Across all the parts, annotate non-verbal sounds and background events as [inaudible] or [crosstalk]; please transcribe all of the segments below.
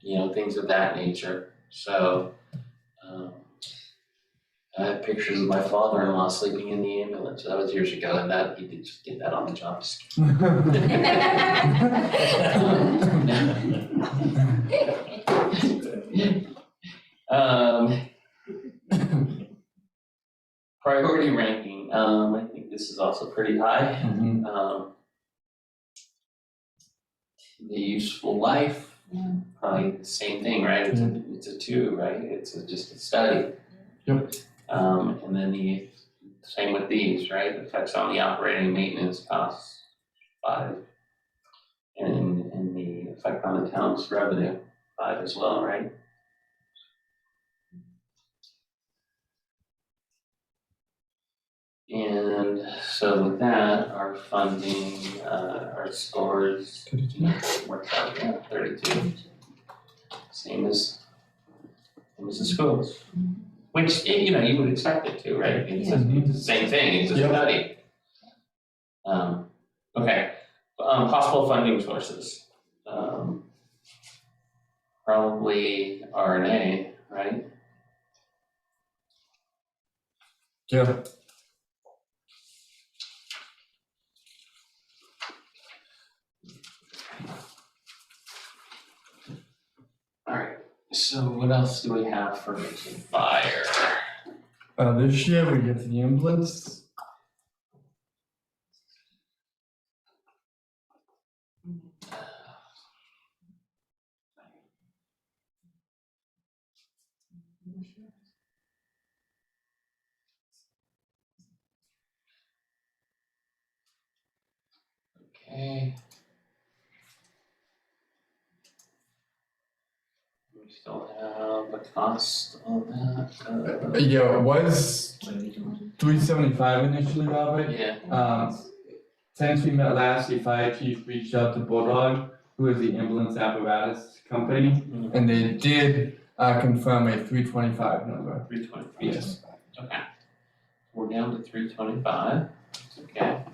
you know, things of that nature, so. um, I have pictures of my father-in-law sleeping in the ambulance, that was years ago, and that, he did just get that on the job. Um. [laughs] Priority ranking, um, I think this is also pretty high, Mhm. um. The useful life. Yeah. Probably the same thing, right? It's a, it's a two, right? It's a- just a study. Yep. Um, and then the, same with these, right? Effects on the operating maintenance costs, five. And, and the effect on the town's revenue, five as well, right? And so with that, our funding, uh, our scores worked out, yeah, thirty-two. Same as, same as the schools. Which, eh, you know, you would expect it to, right? It's a- Yeah. it's the same thing, it's a Yeah. study. Um, okay, um, possible funding sources. Um, probably RNA, right? Yeah. Alright, so what else do we have for fire? Uh, this year we get the ambulance. Okay. We still have the cost on that, Uh, Yeah, it was three seventy-five initially, uh, Robert. yeah, Um, since we met last, the fire chief reached out to Bulldog, who is the ambulance apparatus company, Mhm. and they did, uh, confirm a three twenty-five number. three twenty-five. Okay. We're down to three twenty-five, okay.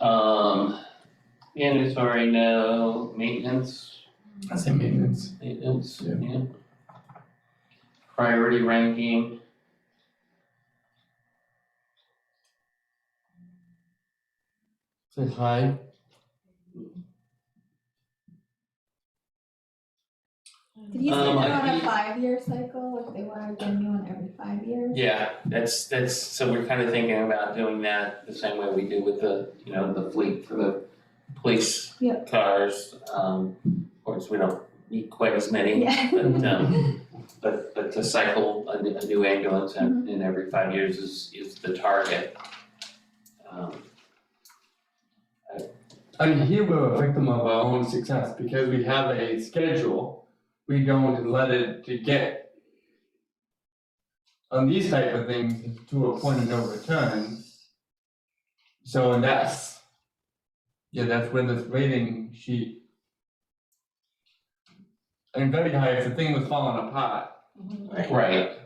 Um, mandatory no maintenance, That's a maintenance. maintenance, Yeah. yeah. Priority ranking. Say hi. Did you say Um, they're I on a think- five-year cycle, if they wanted a new one every five years? Yeah, that's, that's, so we're kind of thinking about doing that the same way we do with the, you know, the fleet for the police Yeah. cars. Um, of course, we don't need quite as many, Yeah. But um, but but to cycle a new- a new ambulance Mm-hmm. in in every five years is is the target. Um, I mean, here we're a victim of our own success because we have a schedule. We don't let it to get on these type of things to a point of no return. So that's, yeah, that's where this rating sheet. And very high, if the thing was falling apart, right,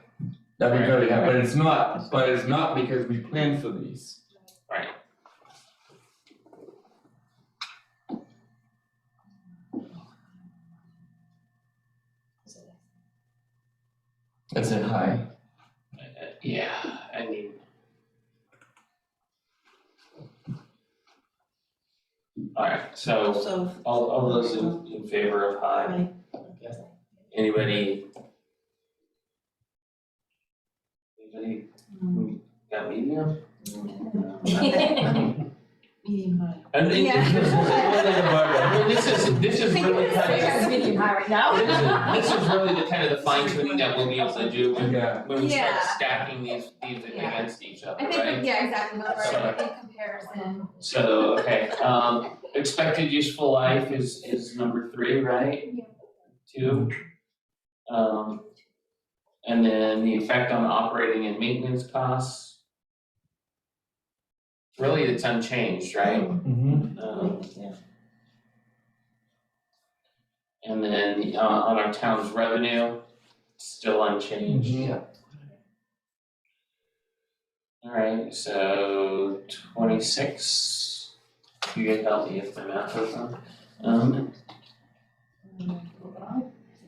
that'd be very high, Right. but it's not, but it's not because we planned for these. Right. That's a high. Uh, yeah, I mean. Alright, [laughs] so So, all all those in in favor of high, I, anybody? Anybody Mm-hmm. got [laughs] medium? No. medium high. And it- Yeah. it's just- it's one of the bar- I mean, this is, this is really kind of, Yes. medium high right now. this [laughs] is, this is really the kind of the fine tuning that we'll be able to do when, [laughs] Yeah, when we start Yeah. stacking these, these Yeah. against each other, [laughs] I right? think, yeah, exactly, no, Sorry. right, in comparison, So, okay, um, expected useful life is, is number three, right? Yeah. Two. Um, and then the effect on operating and maintenance costs. Really, it's unchanged, right? mm-hmm, Um, And then uh, on our town's revenue, still unchanged. Yeah. Alright, so twenty-six, you get healthy if my math is on. Um,